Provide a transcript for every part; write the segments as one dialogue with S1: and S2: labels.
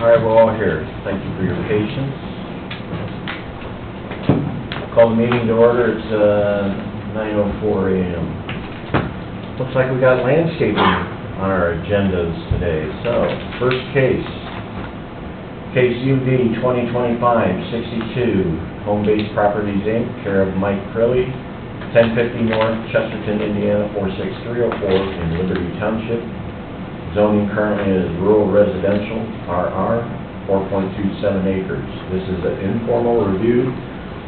S1: All right, we're all here. Thank you for your patience. Call the meeting to order. It's uh, 9:04 a.m. Looks like we got landscaping on our agendas today. So, first case, case UV 2025-62, Home Base Properties, Inc., care of Mike Crilly, 1050 North Chesterton, Indiana, 46304 in Liberty Township, Zoning currently is rural residential, RR, 4.27 acres. This is an informal review,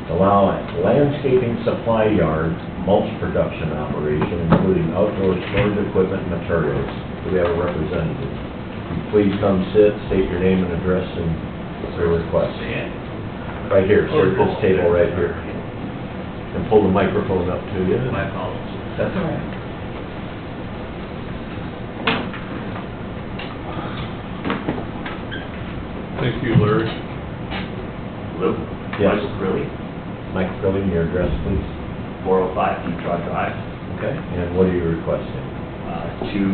S1: to allow a landscaping supply yard, mulch production operation, including outdoor storage equipment and materials. Do we have a representative? Please come sit, state your name and address and your request. Right here, sir, this table right here. And pull the microphone up to you.
S2: My apologies.
S1: That's all right.
S3: Thank you, Larry.
S2: Lou?
S1: Yes.
S2: Michael Curley,
S1: Mike, fill in your address, please.
S2: 405 Detroit Drive,
S1: Okay. And what are you requesting?
S2: uh, to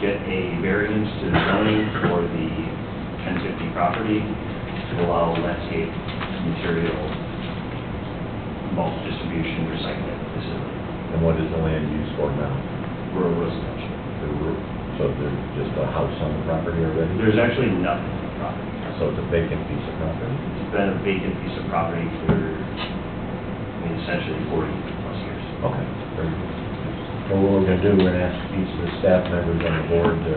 S2: get a variance to the zoning for the 1050 property to allow landscape material bulk distribution recycling facility
S1: And what is the land used for now?
S2: rural residential.
S1: The ru- So there's just a house on the property already?
S2: There's actually nothing on the property.
S1: So it's a vacant piece of property?
S2: It's been a vacant piece of property for, I mean, essentially 40 plus years.
S1: Okay. very good. So what we're gonna do, we're gonna ask each of the staff members on the board to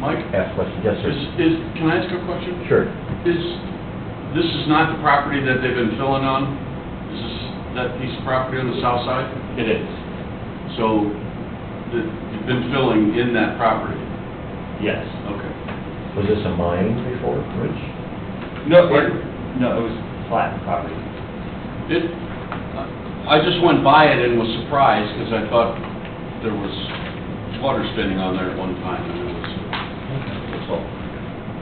S4: Mike,
S1: ask questions. Yes,
S4: is,
S1: sir?
S4: is, can I ask a question?
S1: Sure.
S4: Is, this is not the property that they've been filling on? This is that piece of property on the south side?
S2: It is?
S4: So, that you've been filling in that property?
S2: Yes.
S4: Okay.
S1: Was this a mine before, Rich?
S2: No, it, no, it was flat property.
S4: It, I I just went by it and was surprised because I thought there was water spinning on there at one time. and it was-
S1: That's all.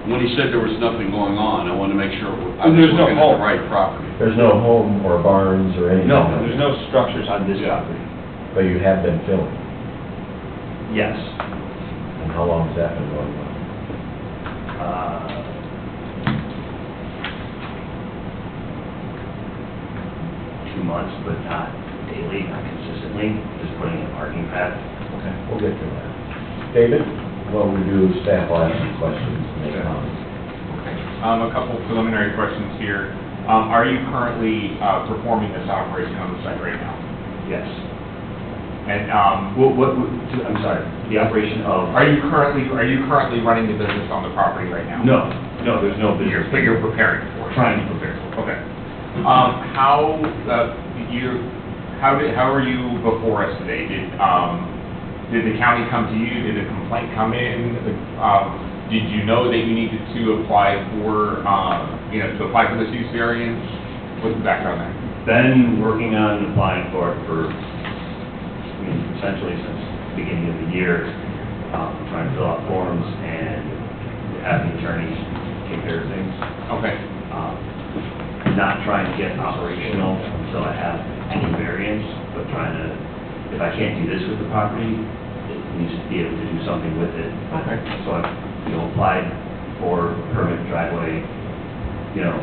S4: When he said there was nothing going on, I wanted to make sure I
S5: And
S4: was
S5: there's no
S4: looking at the
S5: home.
S4: right property.
S1: There's no home or barns or anything?
S5: No, there's no structures on
S2: On this
S4: Yeah.
S2: property?
S1: But you have been filming?
S2: Yes.
S1: And how long has that been going on?
S2: Uh, Two months, but not daily, not consistently, just putting in a parking pad.
S1: Okay. We'll get to that. David, what we do, is staff will ask some questions and make comments.
S5: Um, a couple preliminary questions here. Um, are you currently, uh, performing this operation on the site right now?
S2: Yes.
S5: And, um,
S2: What, what, I'm sorry, the operation of?
S5: are you currently, are you currently running the business on the property right now?
S2: No, no, there's no
S5: You're,
S2: business.
S5: but you're preparing for it?
S2: Trying to prepare.
S5: Okay. Um, how, uh, you, how did, how are you before us today? Did, um, did the county come to you? Did a complaint come in? Um, did you know that you needed to apply for, um, you know, to apply for this use variance? What's the background there?
S2: Been working on applying for it for, I mean, essentially since the beginning of the year, um, trying to fill out forms and have the attorneys take care of things.
S5: Okay,
S2: Um, Not trying to get operational until I have any variance, but trying to, if I can't do this with the property, it needs to be able to do something with it.
S5: Okay.
S2: So I, you know, applied for permit driveway, you know,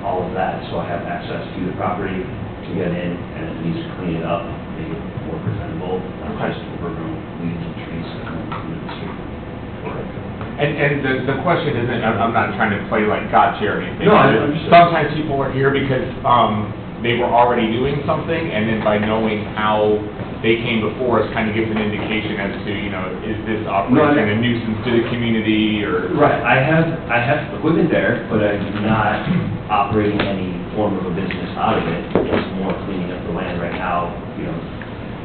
S2: all of that, so I have access to the property to get in and at least clean it up, make it more presentable, not just overgrown weeds and trees that come into the street.
S5: and, and the, the question isn't, I'm, I'm not trying to play like gotcha or anything.
S2: No, I understand.
S5: Sometimes people are here because, um, they were already doing something, and then by knowing how they came before us, kind of gives an indication as to, you know, is this operation a nuisance to the community, or?
S2: Right, I have, I have equipment there, but I'm not operating any form of a business out of it. It's more cleaning up the land right now, you know,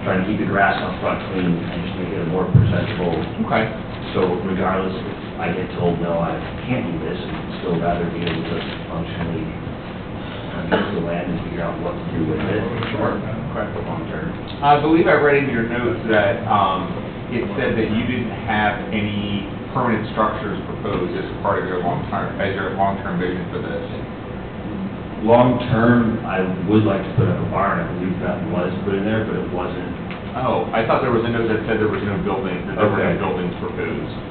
S2: trying to keep the grass up front clean and just make it more presentable.
S5: Okay,
S2: So regardless, if I get told, no, I can't do this, I'd still rather be able to functionally uh, use the land and figure out what to do with it.
S5: Sure. Correct. I believe I read in your notes that, um, it said that you didn't have any permanent structures proposed as part of your long-term, as your long-term vision for this.
S2: Long-term, I would like to put up a barn, I believe that was put in there, but it wasn't
S5: Oh, I thought there was a note that said there was no building, that there were no
S2: Okay.
S5: buildings proposed.